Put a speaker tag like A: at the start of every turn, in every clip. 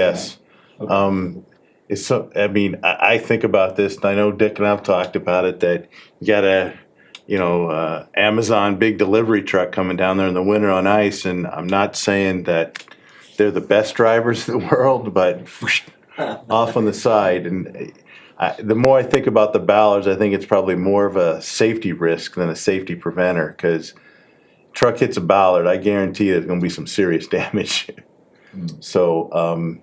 A: Yes. Um, it's so, I mean, I, I think about this, and I know Dick and I've talked about it, that you got a, you know, uh, Amazon big delivery truck coming down there in the winter on ice, and I'm not saying that they're the best drivers in the world, but off on the side, and I, the more I think about the Ballards, I think it's probably more of a safety risk than a safety preventer, cause truck hits a Ballard, I guarantee there's gonna be some serious damage. So, um,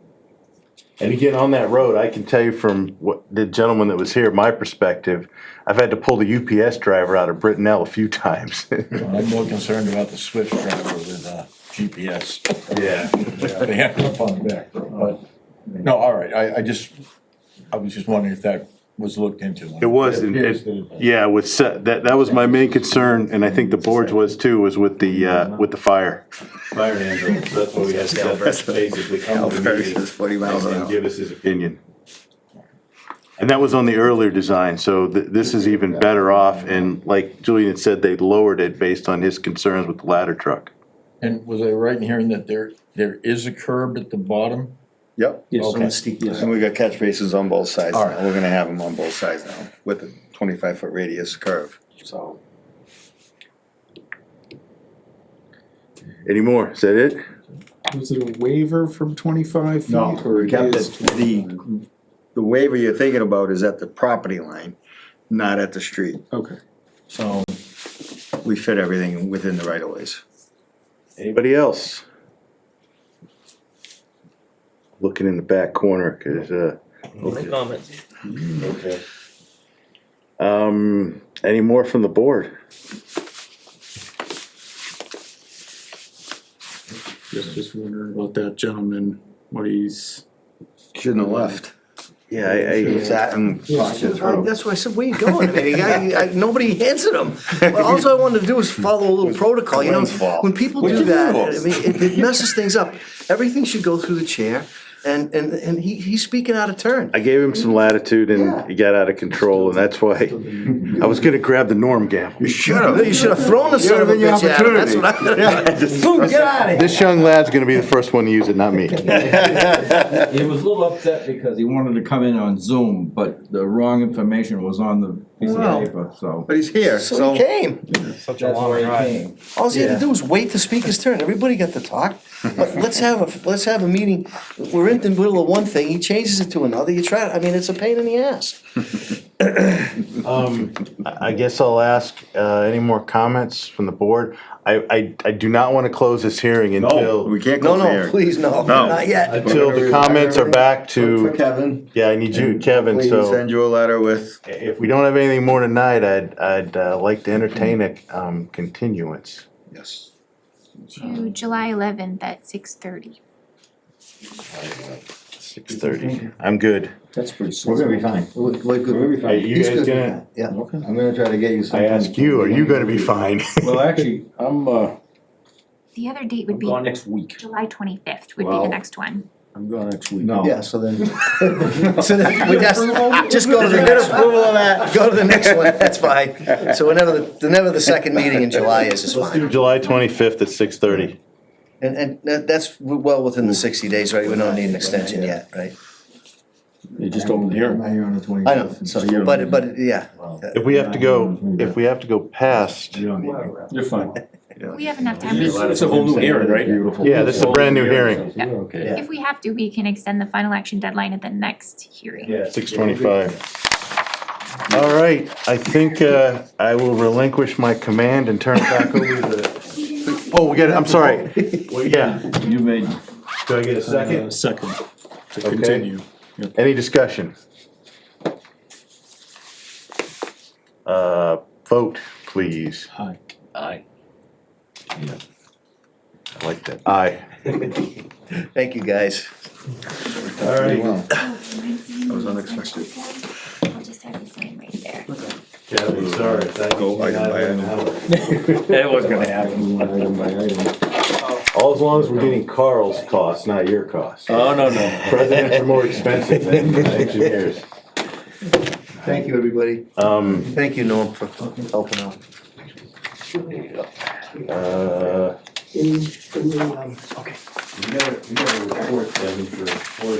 A: and again, on that road, I can tell you from what the gentleman that was here, my perspective, I've had to pull the UPS driver out of Brittenell a few times.
B: I'm more concerned about the Swift driver with uh, GPS.
A: Yeah.
B: They have to on the back, road, but, no, all right, I, I just, I was just wondering if that was looked into.
A: It was, and-
B: appears
A: and-
B: that it-
A: yeah, with, se- that, that was my main concern, and I think the board's was too, was with the, uh, with the fire.
C: Fire ambulance, that's what we had to basically come to the meeting
D: versus forty miles an
C: and
D: hour.
C: give us his opinion.
A: Opinion. And that was on the earlier design, so th- this is even better off, and like Julian had said, they lowered it based on his concerns with the ladder truck.
B: And was I right in hearing that there, there is a curb at the bottom?
D: Yep.
E: Yes,
B: Okay.
E: on steep, yes.
D: And we got catch bases on both sides
B: All right.
D: now. We're gonna have them on both sides now with a twenty-five foot radius curve, so.
A: Any more? Is that it?
E: Was it a waiver from twenty-five feet? or
D: We
E: it
D: kept
E: is
D: it- The, the waiver you're thinking about is at the property line, not at the street.
E: 25? Okay.
D: So we fit everything within the right of ways.
A: Anybody else? Looking in the back corner, cause, uh,
F: No comments.
C: Okay.
A: um, any more from the board?
E: Just, just wondering about that gentleman, what he's,
D: Shouldn't have left.
A: Yeah, I,
D: It's
A: I,
D: at and walked it
G: I-
D: through.
G: That's why I said, where you going? I mean, I- I- Nobody answered him. Well, All I wanted to do was follow a little protocol, you know?
D: Glenn's fault.
G: When people
D: Which
G: do
D: is
G: that, I
D: yours.
G: mean, it it messes things up. Everything should go through the chair, and, and, and he, he's speaking out of turn.
A: I gave him some latitude and he got out of control and that's why I was gonna grab the Norm gavel.
G: Should have. You should have thrown the son of a
D: given
G: bitch
D: you
G: at him, that's what I. Boom, get out of here.
A: This young lad's gonna be the first one to use it, not me.
H: He was a little upset because he wanted to come in on Zoom, but the wrong information was on the piece
G: Wow.
H: of paper, so
D: But he's here,
G: So
D: so.
G: he came.
H: that's why he came.
G: All he had to do was wait to speak his turn. Everybody got to talk. But let's have a, let's have a meeting. We're in the middle of one thing, he changes it to another, you try, I mean, it's a pain in the ass.
A: Um, I I guess I'll ask, uh, any more comments from the board? I, I, I do not wanna close this hearing until,
D: We can't
G: No,
D: go there.
G: no, please, no,
D: No.
G: not yet.
A: until the comments are back
D: For
A: to,
D: Kevin.
A: yeah, I need you, Kevin,
D: Please
A: so.
D: send you a letter with
A: If we don't have anything more tonight, I'd, I'd uh, like to entertain a um, continuance.
D: Yes.
I: to July eleventh at six thirty.
A: Six thirty. I'm good.
E: that's pretty slow.
J: We're gonna be fine. We're gonna be
A: Are
J: fine.
A: you guys gonna,
J: Yeah, I'm gonna try to get you some.
A: I ask you, are you gonna be fine?
B: Well, actually, I'm, uh,
I: The other date
E: I'm
I: would be
E: gone next week.
I: July twenty-fifth would be
B: Wow.
I: the next one.
B: I'm going next week.
J: No.
D: Yeah, so then.
G: So then, we just, just go to the next one. Go to the next one, that's fine. So whenever, the whenever the second meeting in July is, is fine.
A: July twenty-fifth at six thirty.
G: And, and that- that's well within the sixty days, right? We don't need an extension yet, right?
B: They just opened
J: I'm
B: here.
J: not here on the twenty.
G: I know, so, but, but, yeah.
A: If we have to go, if we have to go past,
J: You don't need me.
B: You're fine.
I: We have enough time. We-
B: It's a whole new era, right?
J: Beautiful.
A: yeah, this is a brand new hearing,
J: You're okay.
I: If we have to, we can extend the final action deadline at the next hearing.
A: six twenty-five. All right, I think uh, I will relinquish my command and turn it back over to the, oh, we got, I'm sorry. Well, yeah,
H: You made
A: do I get a
E: Uh,
A: second?
E: Second, to
A: Okay.
E: continue.
A: Any discussion? Uh, vote, please.
E: Hi.
F: Aye.
A: I like that. Aye.
G: Thank you, guys.
A: All right.
I: That
D: was unexpected.
I: I'll just have you sign right there.
A: Kathy, sorry. Thank
D: Go
A: you.
D: item by
B: It was gonna happen.
J: Item by item.
A: All as long as we're getting Carl's cost, not your cost.
B: Oh, no, no.
A: Presidents are more expensive than engineers.
G: Thank you, everybody.
A: Um,
G: Thank you, Norm, for helping out.
A: uh,
K: in, in the, um, okay.
A: You gotta, you gotta report them for forest